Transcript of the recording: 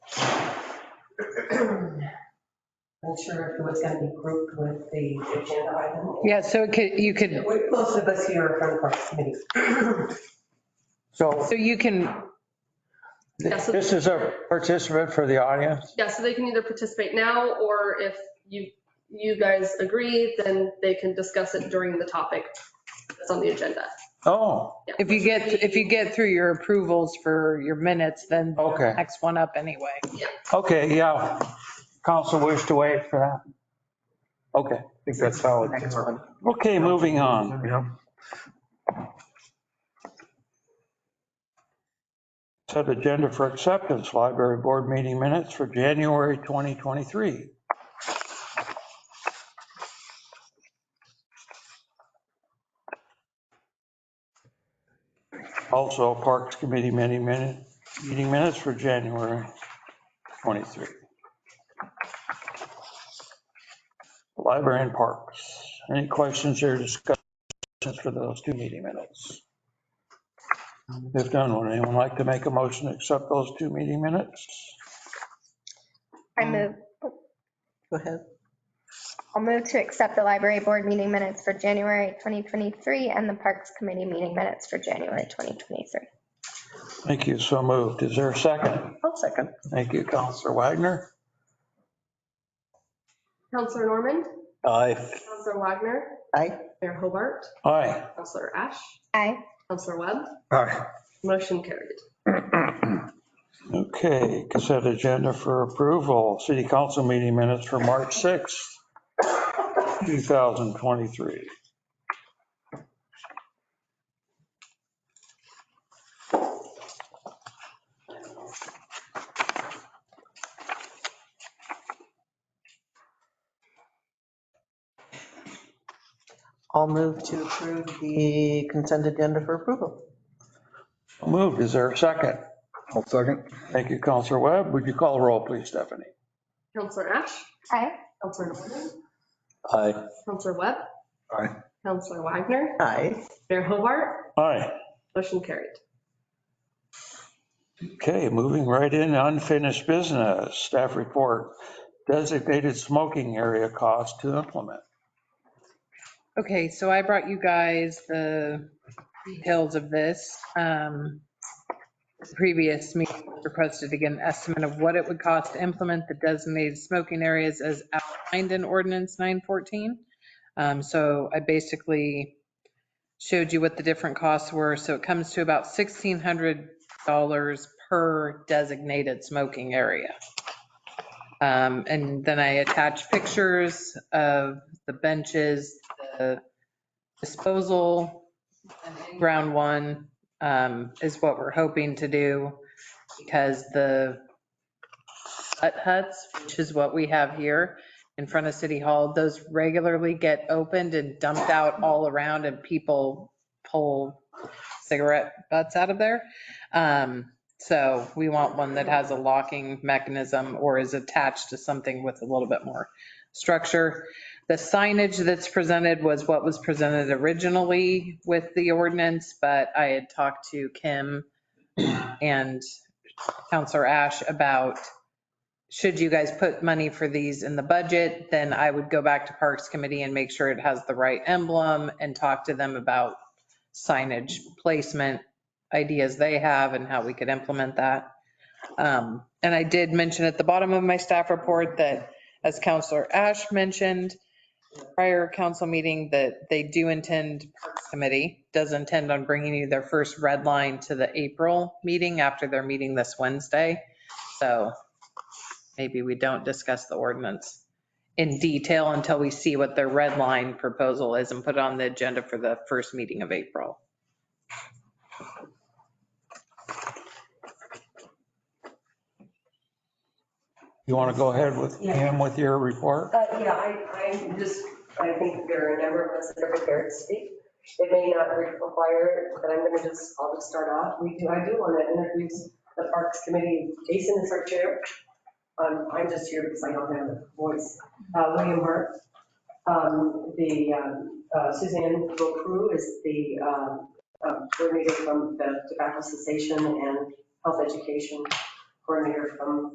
I'm sure if it was going to be grouped with the agenda item. Yeah, so it could, you could, We- Most of us here are from parks committee. So so you can, Yeah, so- this is a participant for the audience. Yeah, so they can either participate now, or if you, you guys agree, then they can discuss it during the topic that's on the agenda. Oh, Yeah. if you get, if you get through your approvals for your minutes, then Okay. next one up anyway. okay, yeah. Council wish to wait for that. Okay, I think that's how it. Next one. Okay, moving on. Yeah. Set agenda for acceptance, library board meeting minutes for January 2023. Also Parks Committee meeting minutes, meeting minutes for January 23. Library and Parks. Any questions or discussions for those two meeting minutes? If none, would anyone like to make a motion to accept those two meeting minutes? I move, Um, Go ahead. I'll move to accept the library board meeting minutes for January 2023 and the Parks Committee meeting minutes for January 2023. Thank you, so moved. Is there a second? I'll second. Thank you, Counselor Wagner. Counselor Norman, Aye. Counselor Wagner, Aye. Mayor Hobart, Aye. Counselor Ash, Aye. Counselor Webb, Aye. motion carried. Okay, consent agenda for approval, city council meeting minutes for March 6th, 2023. I'll move to approve the consent agenda for approval. Moved, is there a second? I'll second. Thank you, Counselor Webb. Would you call the roll, please, Stephanie? Counselor Ash, Aye. Counselor Norman, Aye. Counselor Webb, Aye. Counselor Wagner, Aye. Mayor Hobart, Aye. motion carried. Okay, moving right in, unfinished business, staff report, designated smoking area cost to implement. Okay, so I brought you guys the details of this. Um, the Previous meeting requested to get an estimate of what it would cost to implement the designated smoking areas as outlined in ordinance 914. Um, So I basically showed you what the different costs were. So it comes to about $1,600 per designated smoking area. Um, And then I attached pictures of the benches, the disposal, ground one um, is what we're hoping to do because the hut huts, which is what we have here in front of City Hall, those regularly get opened and dumped out all around and people pull cigarette butts out of there. Um, So we want one that has a locking mechanism or is attached to something with a little bit more structure. The signage that's presented was what was presented originally with the ordinance, but I had talked to Kim and Counselor Ash about, should you guys put money for these in the budget, then I would go back to Parks Committee and make sure it has the right emblem and talk to them about signage placement ideas they have and how we could implement that. Um, And I did mention at the bottom of my staff report that as Counselor Ash mentioned, prior council meeting, that they do intend, Parks Committee does intend on bringing you their first red line to the April meeting after their meeting this Wednesday. So maybe we don't discuss the ordinance in detail until we see what their red line proposal is and put it on the agenda for the first meeting of April. You want to go ahead with Yeah. him with your report? Uh, Yeah, I, I just, I think there are a number of us that are prepared to speak. It may not require, but I'm going to just, I'll just start off. We do, I do want to introduce the Parks Committee. Jason is our chair. Um, I'm just here because I don't have a voice. Uh, William Hart, um, the, um, uh, Suzanne Gokru is the, um, uh, coordinator from the Tobacco Cessation and Health Education Coordinator from